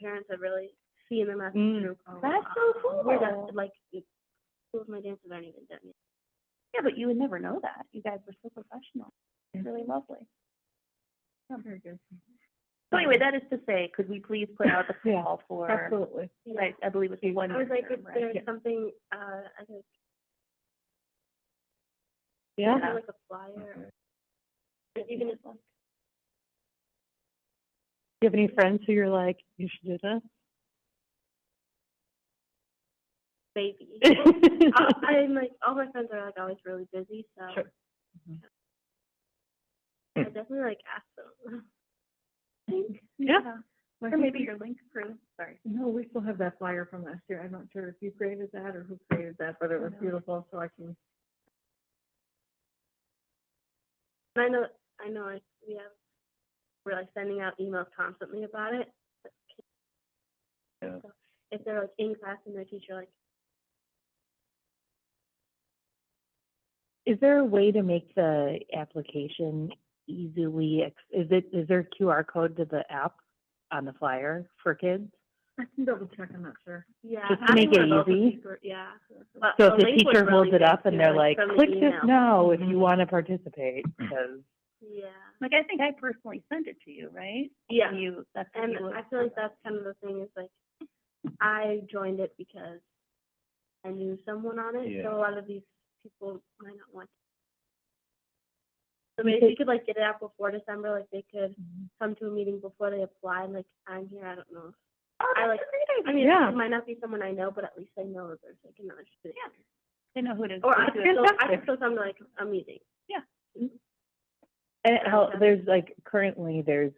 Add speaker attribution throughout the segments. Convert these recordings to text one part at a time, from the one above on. Speaker 1: parents have really seen the message
Speaker 2: Mm.
Speaker 1: through.
Speaker 3: That's so cool.
Speaker 1: We're just like, schools, my dances aren't even done yet.
Speaker 3: Yeah, but you would never know that. You guys were so professional.
Speaker 2: Yeah.
Speaker 3: It's really lovely. Oh,
Speaker 2: Very good.
Speaker 3: So anyway, that is to say, could we please put out the
Speaker 2: Yeah,
Speaker 3: call for,
Speaker 2: Absolutely.
Speaker 1: you know.
Speaker 3: like, I believe it's one
Speaker 1: I was like,
Speaker 3: year,
Speaker 1: if
Speaker 3: right?
Speaker 1: there's
Speaker 2: Yeah.
Speaker 1: something, uh, I think,
Speaker 2: Yeah.
Speaker 3: Yeah.
Speaker 1: like a flyer, or even if,
Speaker 2: Do you have any friends who you're like, you should do this?
Speaker 3: Mm-hmm.
Speaker 1: baby. I- I'm like, all my friends are like always really busy, so
Speaker 2: Sure.
Speaker 3: Mm-hmm.
Speaker 1: I definitely like ask them.
Speaker 2: Yeah.
Speaker 3: Or maybe your link crew, sorry.
Speaker 2: No, we still have that flyer from last year. I'm not sure if you created that or who created that, but it was
Speaker 3: No.
Speaker 2: beautiful, so I can.
Speaker 1: And I know, I know, like we have, we're like sending out emails constantly about it. but kids-
Speaker 4: Yeah.
Speaker 1: so If they're like in class and their teacher like,
Speaker 5: Is there a way to make the application easily, ex- is it, is there a QR code to the app on the flyer for kids?
Speaker 2: I can double check, I'm not sure.
Speaker 1: yeah.
Speaker 5: Just to
Speaker 1: having
Speaker 5: make it
Speaker 1: one of those would be
Speaker 5: easy.
Speaker 1: gr- Yeah. But
Speaker 5: So if
Speaker 1: link
Speaker 5: the
Speaker 1: would
Speaker 5: teacher holds
Speaker 1: really
Speaker 5: it
Speaker 1: good,
Speaker 5: up
Speaker 1: too,
Speaker 5: and they're like,
Speaker 1: from the
Speaker 5: click this
Speaker 1: email."
Speaker 5: now
Speaker 2: Mm-hmm.
Speaker 5: if you want to participate, because
Speaker 1: Yeah.
Speaker 3: Like, I think I personally sent it to you, right?
Speaker 1: Yeah.
Speaker 3: You, that's. what
Speaker 1: And
Speaker 3: you would-
Speaker 1: I feel like that's kind of the thing is like, I joined it because I knew someone on it,
Speaker 4: Yeah.
Speaker 1: so a lot of these people might not want. So
Speaker 5: We
Speaker 1: maybe
Speaker 5: could- Mm-hmm.
Speaker 1: we could like get it out before December, like they could come to a meeting before they apply, and like I'm here, I don't know.
Speaker 3: Oh,
Speaker 1: I
Speaker 3: that's
Speaker 1: like-
Speaker 3: a
Speaker 1: I
Speaker 3: great
Speaker 1: mean,
Speaker 3: idea.
Speaker 1: it might not be someone I know, but at least I know that there's like another student.
Speaker 3: Yeah.
Speaker 1: here.
Speaker 3: They know who it is.
Speaker 1: Or I
Speaker 3: Let's do
Speaker 1: could
Speaker 3: it.
Speaker 1: still, I could
Speaker 2: Fantastic.
Speaker 1: still come to like a meeting.
Speaker 5: And how,
Speaker 1: Gotcha.
Speaker 5: there's like, currently, there's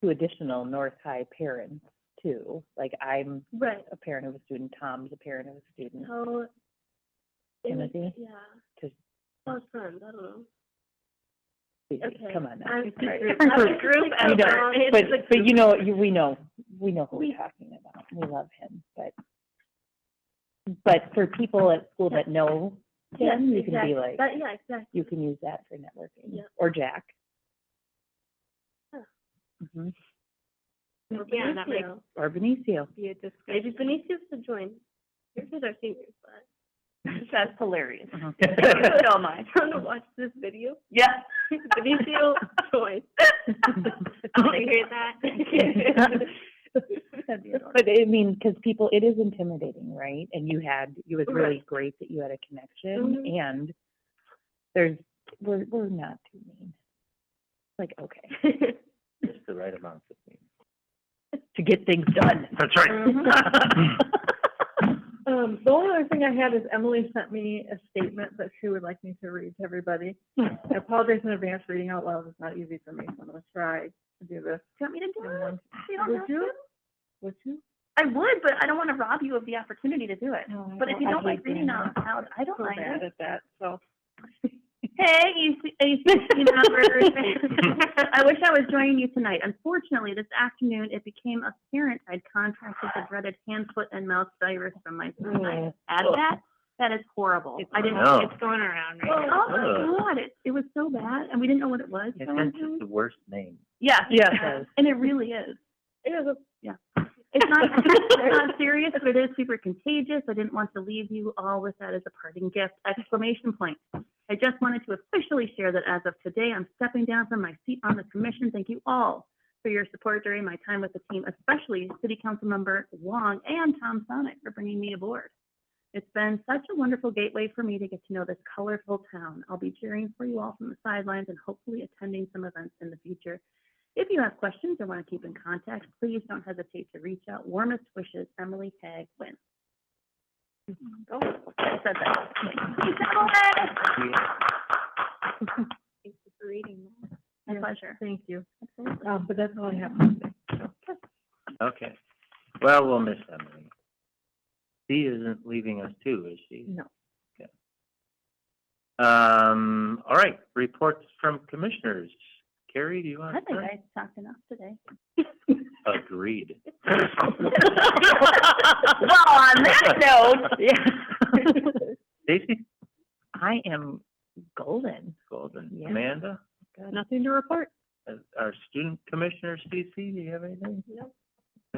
Speaker 5: two additional North High parents too. Like, I'm
Speaker 1: Right.
Speaker 5: a parent of a student, Tom's a parent of a student.
Speaker 1: So. it was-
Speaker 5: Timothy?
Speaker 1: Yeah.
Speaker 5: To-
Speaker 1: Close friends, I don't know. Okay.
Speaker 5: Come on now.
Speaker 1: I'm
Speaker 5: Right.
Speaker 1: different
Speaker 5: Right.
Speaker 1: group
Speaker 5: We
Speaker 1: effort.
Speaker 5: don't,
Speaker 1: It's
Speaker 5: but,
Speaker 1: a group
Speaker 5: but you know, you, we know, we know who
Speaker 1: We-
Speaker 5: we're talking about. We love him, but, but for people at school that know
Speaker 1: Yes,
Speaker 5: him, you can
Speaker 1: exactly.
Speaker 5: be like,
Speaker 1: That, yeah, exactly.
Speaker 5: you can use that for networking.
Speaker 1: Yep.
Speaker 5: Or Jack.
Speaker 1: Huh.
Speaker 5: Mhm.
Speaker 1: Or
Speaker 3: Yeah, that makes-
Speaker 1: Benicio.
Speaker 5: Or Benicio.
Speaker 2: Be a discussion.
Speaker 1: Maybe Benicio should join. Your kids are seniors, but
Speaker 3: That's hilarious.
Speaker 1: So
Speaker 5: Uh-huh.
Speaker 3: So much.
Speaker 1: I want to watch this video.
Speaker 3: Yeah.
Speaker 1: Benicio join. I hear that.
Speaker 3: That'd be adorable.
Speaker 5: But I mean, because people, it is intimidating, right? And you had, it was really
Speaker 1: Right.
Speaker 5: great that you had a connection
Speaker 2: Mm-hmm.
Speaker 1: Mhm.
Speaker 5: and there's, we're, we're not too mean. Like, okay,
Speaker 4: It's the right amount of me.
Speaker 5: to get things done.
Speaker 4: That's
Speaker 2: Um, the only other thing I had is Emily sent me a statement that she would like me to read to everybody.
Speaker 5: Hmm.
Speaker 2: I apologize in advance, reading out loud is not easy for me, so I'm gonna try to do this.
Speaker 3: Do you want me to
Speaker 2: in
Speaker 3: do it?
Speaker 2: one-
Speaker 3: You don't
Speaker 2: Would
Speaker 3: have
Speaker 2: you?
Speaker 3: to.
Speaker 2: Would you?
Speaker 3: I would, but I don't want to rob you of the opportunity to do it. But if you don't like reading out loud, I don't
Speaker 2: So
Speaker 3: mind
Speaker 2: bad
Speaker 3: it.
Speaker 2: at that, so.
Speaker 3: Hey, you, you sixteen members. I wish I was joining you tonight. Unfortunately, this afternoon, it became apparent I'd contracted the dreaded hand, foot, and mouth virus from my son. Add that, that is horrible. I didn't,
Speaker 4: No.
Speaker 3: Oh.
Speaker 5: Oh.
Speaker 3: it's going around right now. Oh,
Speaker 4: Ugh.
Speaker 3: my God, it, it was so bad, and we didn't know what it was. for one
Speaker 4: It's
Speaker 3: thing.
Speaker 4: just the worst name.
Speaker 3: Yeah.
Speaker 5: Yeah.
Speaker 3: And it really is.
Speaker 1: It is a
Speaker 3: It's not, it's not serious, but it is super contagious. I didn't want to leave you all with that as a parting gift, exclamation point. I just wanted to officially share that as of today, I'm stepping down from my seat on the commission. Thank you all for your support during my time with the team, especially City Council Member Wong and Tom Sonic for bringing me aboard. It's been such a wonderful gateway for me to get to know this colorful town. I'll be cheering for you all from the sidelines and hopefully attending some events in the future. If you have questions or want to keep in contact, please don't hesitate to reach out. Warmest wishes, Emily Tag Wynn. Oh, I said that. Thanks, Emily.
Speaker 1: thank you for reading that.
Speaker 3: My
Speaker 2: Yes,
Speaker 3: pleasure.
Speaker 2: Thank you.
Speaker 3: Absolutely.
Speaker 2: Um, but that's all I have to say.
Speaker 4: Okay. Well, we'll miss Emily. She isn't leaving us too, is she?
Speaker 2: No.
Speaker 4: Um, all right, reports from commissioners. Carrie, do you want
Speaker 3: I
Speaker 4: to
Speaker 3: think
Speaker 4: start?
Speaker 3: I talked enough today.
Speaker 4: Agreed.
Speaker 3: Well, on that note,
Speaker 4: Stacy
Speaker 5: I am golden.
Speaker 4: Golden,
Speaker 5: Yeah.
Speaker 4: Amanda,
Speaker 2: Nothing to report.
Speaker 4: uh, our student commissioner, Stacy, do you have anything?